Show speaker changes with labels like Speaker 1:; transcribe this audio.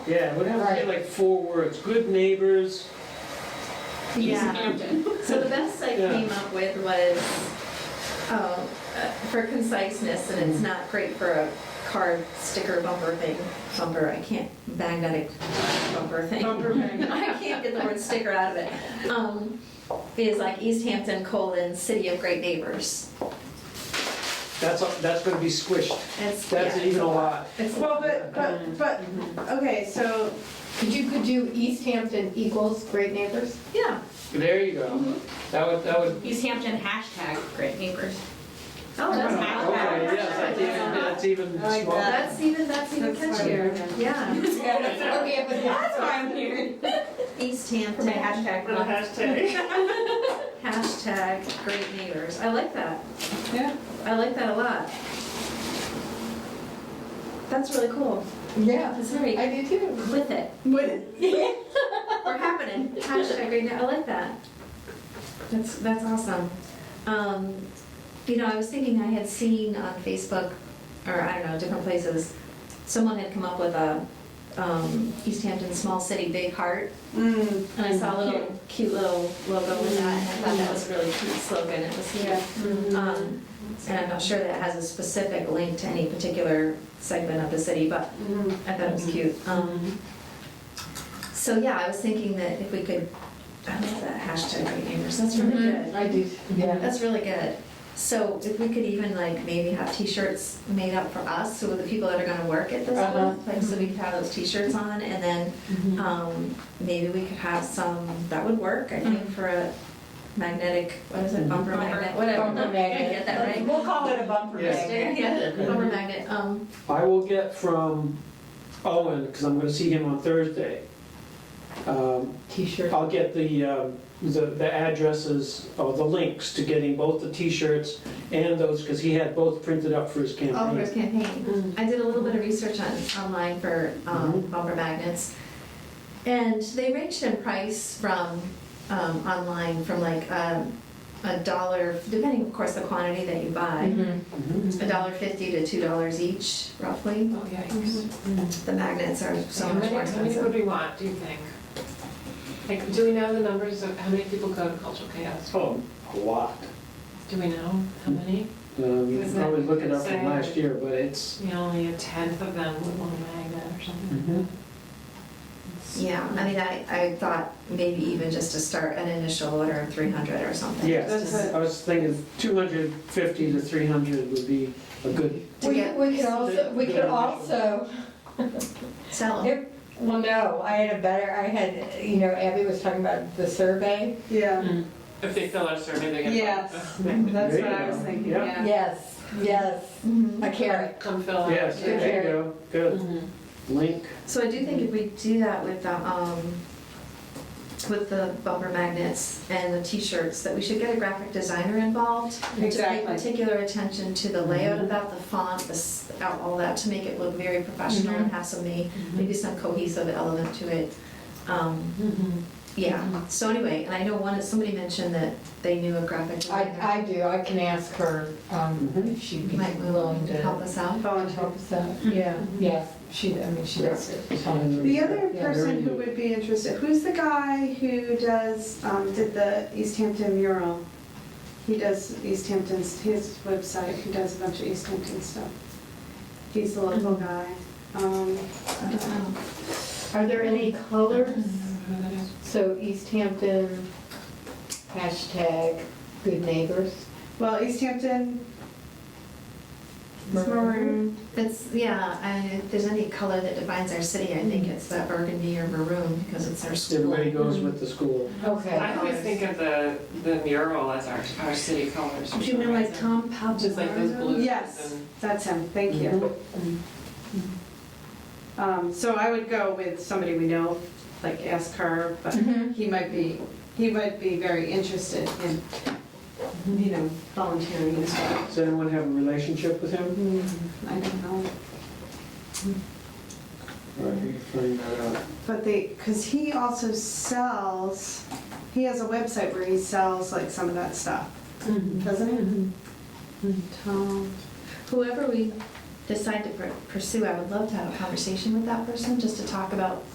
Speaker 1: Yeah, it would have to be
Speaker 2: Right.
Speaker 1: like four words, good neighbors,
Speaker 3: East
Speaker 2: Yeah.
Speaker 3: Hampton.
Speaker 2: So the best I
Speaker 1: Yeah.
Speaker 2: came up with was, um, uh, for conciseness, and it's not great for a car sticker bumper thing, bumper, I can't, magnetic bumper thing.
Speaker 3: Bumper magnet.
Speaker 2: I can't get the word sticker out of it. Um, Is like East Hampton colon, city of great neighbors.
Speaker 1: that's, that's gonna be squished.
Speaker 2: That's,
Speaker 1: That's
Speaker 2: yeah,
Speaker 1: even a lot.
Speaker 2: it's-
Speaker 4: Well, but, but, but, okay, so
Speaker 3: Could you, could do East Hampton equals Great Neighbors?
Speaker 2: Yeah,
Speaker 1: There you go. That would, that would,
Speaker 5: East Hampton hashtag great neighbors.
Speaker 2: oh, that's
Speaker 5: Okay.
Speaker 2: not
Speaker 1: okay,
Speaker 2: bad.
Speaker 1: yes, that's even, that's even
Speaker 4: I like
Speaker 1: smaller.
Speaker 2: That's even, that's even
Speaker 4: That's
Speaker 2: catchier,
Speaker 4: funny.
Speaker 2: yeah.
Speaker 5: That's why I'm here.
Speaker 2: East
Speaker 5: For my
Speaker 2: Hampton
Speaker 5: hashtag.
Speaker 4: for the hashtag.
Speaker 2: Hashtag great neighbors. I like that.
Speaker 4: Yeah.
Speaker 2: I like that a lot. That's really cool.
Speaker 3: Yeah.
Speaker 2: That's very
Speaker 3: I do too.
Speaker 2: with it.
Speaker 3: Would,
Speaker 2: We're happening. Hashtag great neighbors. I like that. That's that's awesome. Um, you know, I was thinking I had seen on Facebook or I don't know different places. Someone had come up with a um, East Hampton small city big heart
Speaker 3: Mm-hmm.
Speaker 4: Mm,
Speaker 2: And I saw a little cute little logo with that, and I thought that was a really cute slogan, it was
Speaker 4: yeah.
Speaker 2: cute. Um, And I'm not sure that has a specific link to any particular segment of the city, but
Speaker 4: Mm.
Speaker 2: I thought it
Speaker 3: Mm-hmm.
Speaker 2: was cute. Um, So yeah, I was thinking that if we could, I love that hashtag Great Neighbors, that's really good.
Speaker 3: I do, yeah.
Speaker 2: That's really good. So if we could even like maybe have t-shirts made up for us, so the people that are gonna work at this
Speaker 3: Uh-huh. Mm-hmm.
Speaker 2: one, like, so we could have those t-shirts on, and then, um, maybe we could have some, that would work, I think,
Speaker 3: Mm-hmm.
Speaker 2: for a magnetic, what is it, bumper
Speaker 5: Bumper.
Speaker 2: magnet, whatever.
Speaker 3: Bumper
Speaker 2: Did I
Speaker 3: magnet.
Speaker 2: Get that right?
Speaker 4: We'll call it a bumper
Speaker 1: Yes.
Speaker 4: magnet.
Speaker 2: Yeah, bumper magnet, um,
Speaker 1: I will get from Owen, because I'm gonna see him on Thursday. Um,
Speaker 3: T-shirt.
Speaker 1: I'll get the, um, the the addresses, or the links to getting both the t-shirts and those, because he had both printed up for his
Speaker 2: all for his
Speaker 1: campaign.
Speaker 2: campaign. I did a little bit of research on, online for um, bumper magnets, and they ranged in price from, um, online, from like um, a dollar, depending, of course, the quantity that you buy,
Speaker 1: Mhm.
Speaker 2: a dollar fifty to two dollars each, roughly.
Speaker 6: Oh, yikes.
Speaker 2: The magnets are so
Speaker 6: How
Speaker 2: much
Speaker 6: many,
Speaker 2: more
Speaker 6: how many
Speaker 2: expensive.
Speaker 6: would we want, do you think? Like, do we know the numbers of how many people go to cultural chaos?
Speaker 1: Oh, a lot.
Speaker 6: Do we know how many?
Speaker 1: Um, You can
Speaker 6: Is that
Speaker 1: probably look it up from
Speaker 6: insane?
Speaker 1: last year, but it's,
Speaker 6: You know, only a tenth of them would want a magnet or
Speaker 1: Mhm.
Speaker 6: something.
Speaker 2: Yeah, I mean, I, I thought maybe even just to start an initial order of three hundred or something.
Speaker 1: yeah.
Speaker 6: That's
Speaker 1: I was thinking 250 to 300 would be a good,
Speaker 2: To
Speaker 3: We,
Speaker 2: get-
Speaker 3: we could also, we could also,
Speaker 2: Sell 'em.
Speaker 3: if, well, no, I had a better, I had, you know, Abby was talking about the survey.
Speaker 4: Yeah,
Speaker 6: Mm. If they fill out a survey, they get. a
Speaker 4: yes,
Speaker 6: magnet.
Speaker 4: that's
Speaker 1: There
Speaker 4: what
Speaker 1: you
Speaker 4: I was
Speaker 1: go.
Speaker 4: thinking,
Speaker 1: Yeah.
Speaker 4: yeah.
Speaker 3: Yes, yes,
Speaker 2: Mhm.
Speaker 3: a carrot.
Speaker 6: Come fill out.
Speaker 1: yes,
Speaker 6: yeah.
Speaker 1: there you go, good.
Speaker 6: Mhm.
Speaker 1: Link,
Speaker 2: So I do think if we do that with the, um, with the bumper magnets and the t-shirts, that we should get a graphic designer involved. To pay
Speaker 4: Exactly.
Speaker 2: particular attention to the layout
Speaker 3: Mm-hmm.
Speaker 2: of that, the font, the, s- all that, to make it look very professional
Speaker 3: Mm-hmm.
Speaker 2: and have some, may- maybe some cohesive element to it. Um,
Speaker 6: Mhm.
Speaker 3: Mm-hmm.
Speaker 2: yeah, so anyway, and I know one, somebody mentioned that they knew a graphic designer.
Speaker 3: I, I do, I can ask her, um,
Speaker 1: Mhm.
Speaker 3: if she'd be
Speaker 2: Might we
Speaker 3: willing to
Speaker 2: help us out?
Speaker 3: help us out. Yeah, yeah, she, I mean, she does it.
Speaker 4: The other
Speaker 1: Yeah,
Speaker 4: person
Speaker 1: very
Speaker 4: who
Speaker 1: good.
Speaker 4: would be interested, who's the guy who does, um, did the East Hampton mural? He does East Hampton's, his website, he does a bunch of East Hampton stuff. He's a local
Speaker 1: Mm-hmm.
Speaker 4: guy. Um,
Speaker 2: Oh,
Speaker 7: Are there any colors?
Speaker 6: Whatever that is.
Speaker 7: So East Hampton, hashtag good neighbors.
Speaker 4: Well, East Hampton, it's maroon.
Speaker 2: It's, yeah, I- if there's any color that defines our city, I think it's that burgundy or maroon, because it's our school.
Speaker 1: Everybody goes with the school.
Speaker 7: Okay.
Speaker 6: I always think of the, the mural as our, our city colors. for
Speaker 2: Do you
Speaker 6: some
Speaker 2: remember like
Speaker 6: reason.
Speaker 2: Tom Pablo?
Speaker 6: Just like those blues.
Speaker 4: Yes,
Speaker 6: and-
Speaker 4: that's him, thank you. Um, So I would go with somebody we know, like ask her, but he might be, he might be very interested in, you know, volunteering as well.
Speaker 1: Does anyone have a relationship with him?
Speaker 4: I don't know.
Speaker 1: All right, we can find that out.
Speaker 4: But they, because he also sells, he has a website where he sells like some of that stuff, doesn't he? Mm-hmm. Tom,
Speaker 2: Whoever we decide to pur- pursue, I would love to have a conversation with that person just to talk about